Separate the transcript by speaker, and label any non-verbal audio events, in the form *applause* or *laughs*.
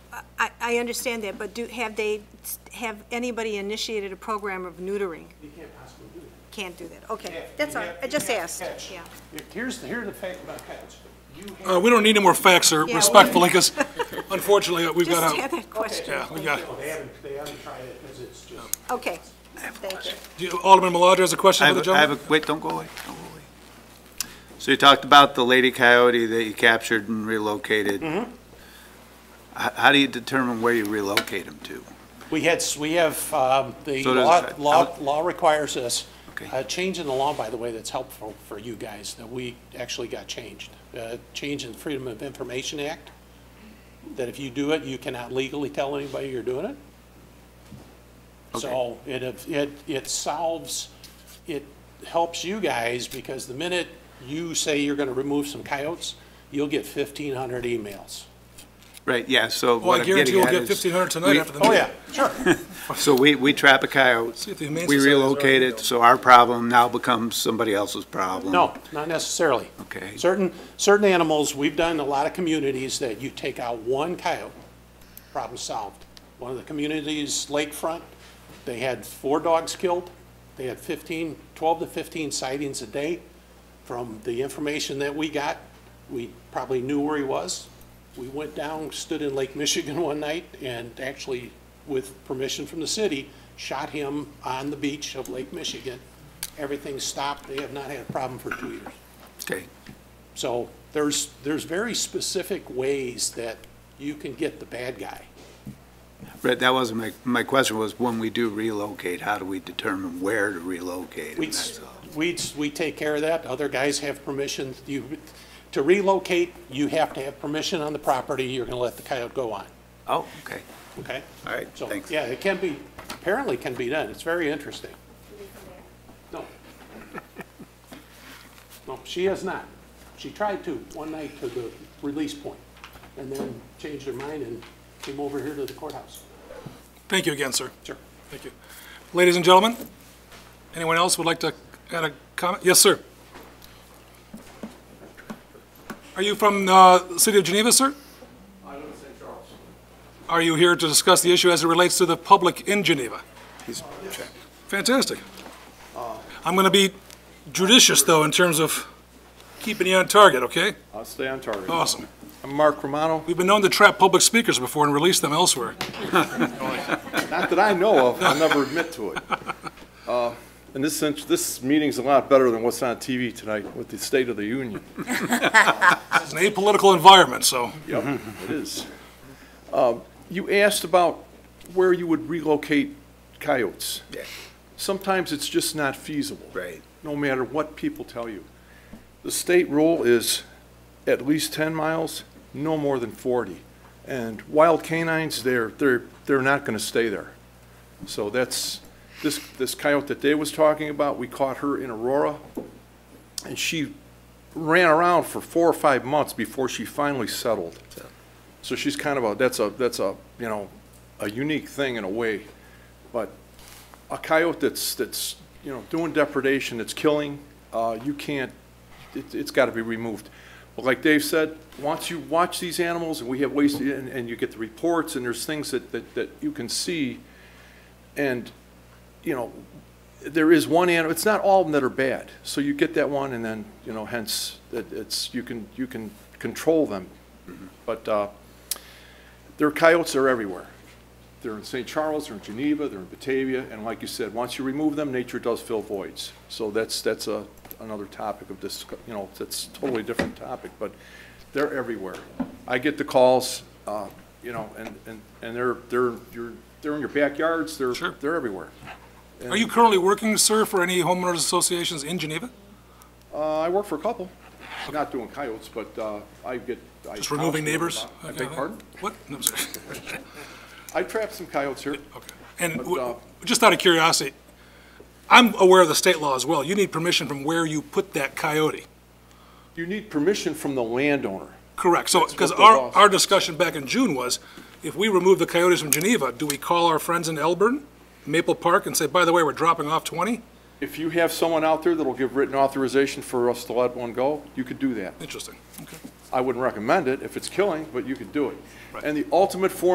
Speaker 1: I, I understand that, but do, have they, have anybody initiated a program of neutering?
Speaker 2: You can't possibly do that.
Speaker 1: Can't do that, okay,
Speaker 2: Yeah, you
Speaker 1: that's all,
Speaker 2: have-
Speaker 1: right. I
Speaker 2: you
Speaker 1: just
Speaker 2: have to
Speaker 1: asked,
Speaker 2: catch.
Speaker 1: yeah.
Speaker 2: If- Here's, the- here are the fact about catch. You
Speaker 3: Uh,
Speaker 2: have,
Speaker 3: we don't need any more facts, sir,
Speaker 1: we-
Speaker 3: respectfully,
Speaker 1: *laughs*
Speaker 3: because unfortunately, uh, we've
Speaker 1: Just had
Speaker 3: got out.
Speaker 1: that question,
Speaker 3: Yeah, we got,
Speaker 2: no, they haven't, they haven't tried it because it's just.
Speaker 1: okay, thank you.
Speaker 3: Do you- Alderman Maladra has a question
Speaker 4: I
Speaker 3: for
Speaker 4: have,
Speaker 3: the
Speaker 4: a- I have
Speaker 3: gentleman?
Speaker 4: a, wait, don't go away, don't go away. So you talked about the lady coyote that you captured and relocated. How,
Speaker 3: Mm-hmm.
Speaker 4: how do you determine where you relocate them to?
Speaker 2: We had, we have, um, the
Speaker 4: So does-
Speaker 2: law, law, law requires us,
Speaker 4: Okay.
Speaker 2: a change in the law, by the way, that's helpful for you guys, that we actually got changed. Uh, change in Freedom of Information Act, that if you do it, you cannot legally tell anybody you're doing it. So it, it, it solves, it helps you guys, because the minute you say you're gonna remove some coyotes, you'll get fifteen hundred emails.
Speaker 4: Right, yeah, so
Speaker 3: Well,
Speaker 4: what
Speaker 3: I
Speaker 4: I'm
Speaker 3: guarantee
Speaker 4: getting
Speaker 3: we'll
Speaker 4: at
Speaker 3: get
Speaker 4: is.
Speaker 3: fifteen hundred tonight
Speaker 4: we-
Speaker 3: after the
Speaker 2: Oh,
Speaker 3: meeting.
Speaker 2: yeah, sure.
Speaker 4: So we, we trap a
Speaker 3: See
Speaker 4: coyote,
Speaker 3: if the Humane
Speaker 4: we
Speaker 3: Society's already
Speaker 4: relocate
Speaker 3: built.
Speaker 4: it, so our problem now becomes somebody else's
Speaker 2: *laughs*
Speaker 4: problem.
Speaker 2: No, not necessarily.
Speaker 4: Okay.
Speaker 2: Certain, certain animals, we've done a lot of communities that you take out one coyote, problem solved. One of the communities, lakefront, they had four dogs killed. They had 15, 12 to 15 sightings a day. From the information that we got, we probably knew where he was. We went down, stood in Lake Michigan *laughs* one night, and actually, with permission from the city, shot him on the beach of Lake Michigan. Everything stopped. They have not had a problem for two years.
Speaker 4: Okay,
Speaker 2: So there's, there's very specific ways that you can get the bad guy.
Speaker 4: Right, that wasn't my, my question was, when we do relocate, how do we determine where to relocate?
Speaker 2: We,
Speaker 4: And that's all.
Speaker 2: we, we take care of that. Other guys have permission. You, to relocate, you have to have permission on the property you're going to let the coyote go on,
Speaker 4: Oh, okay,
Speaker 2: okay?
Speaker 4: all right,
Speaker 2: So,
Speaker 4: thanks.
Speaker 2: yeah, it can be, apparently can be done. It's very interesting. No. No, she has not. She tried to one night to the release point and then changed her mind and came over here to the courthouse.
Speaker 3: Thank you again, sir.
Speaker 2: Sure.
Speaker 3: Thank you. Ladies and gentlemen, anyone else would like to add a comment? Yes, sir. Are you from uh, the city of Geneva, sir?
Speaker 5: I live in St. Charles.
Speaker 3: Are you here to discuss the issue as it relates to the public in Geneva? Fantastic. I'm going to be judicious, though, in terms of keeping you on target, okay?
Speaker 5: I'll stay on target.
Speaker 3: Awesome.
Speaker 5: I'm Mark Romano,
Speaker 3: We've been known to trap public speakers before and release them elsewhere.
Speaker 5: not that I know of, I'll never *laughs* admit to it. Uh, In this sense, this *laughs* meeting's a lot better than what's on TV tonight with the State of the Union.
Speaker 3: It's an apolitical environment, so
Speaker 5: Yep, it is. Um, You asked about where you would relocate coyotes.
Speaker 4: Yeah.
Speaker 5: Sometimes it's just not feasible.
Speaker 4: Right.
Speaker 5: No matter what people tell you. The state rule is at least 10 miles, no more than 40. And wild canines, they're, they're, they're not going to stay there. So that's, this, this coyote that Dave was talking about, we caught her in Aurora, and she ran around for four or five months before she finally settled. So she's kind of a, that's a, that's a, you know, a unique thing in a way. But a coyote that's, that's, you know, doing depredation, that's killing, uh, you can't, it, it's gotta be removed. But like Dave said, once you watch these animals, and we have ways, to- and, and you get the reports, and there's things that, that, that you can see, and, you know, there is one animal, it's not all of them that are bad. So you get that one, and then, you know, hence, it, it's, you can, you can control them. But, uh, their coyotes are everywhere. They're in St. Charles, they're in Geneva, they're in Batavia, and like you said, once you remove them, nature does fill voids. So that's, that's a, another topic of this, you know, that's a totally different topic, but they're everywhere. I get the calls, uh, you know, and, and, and they're, they're, you're, they're in your backyards, they're,
Speaker 3: Sure.
Speaker 5: they're everywhere.
Speaker 3: are you currently working, sir, for any homeowners associations in Geneva?
Speaker 5: Uh, I work for a couple, not doing coyotes, but, uh, I get. I-
Speaker 3: Just removing neighbors?
Speaker 5: I Uh, beg pardon?
Speaker 3: What? No, I'm sorry.
Speaker 5: *laughs* I trap some coyotes here.
Speaker 3: Okay. And
Speaker 5: But,
Speaker 3: w-
Speaker 5: uh,
Speaker 3: just out of curiosity, I'm aware of the state law as well. You need permission from where you put that coyote.
Speaker 5: You need permission from the landowner.
Speaker 3: Correct. So, because
Speaker 5: what the
Speaker 3: our,
Speaker 5: law
Speaker 3: our discussion back in June was, if we remove the coyotes from Geneva, do we call our friends in Elburn, Maple Park, and say, by the way, we're dropping off 20?
Speaker 5: If you have someone out there that'll give written authorization for us to let one go, you could do that.
Speaker 3: Interesting. Okay.
Speaker 5: I wouldn't recommend it if it's killing, but you could do it.
Speaker 3: Right.
Speaker 5: And the ultimate form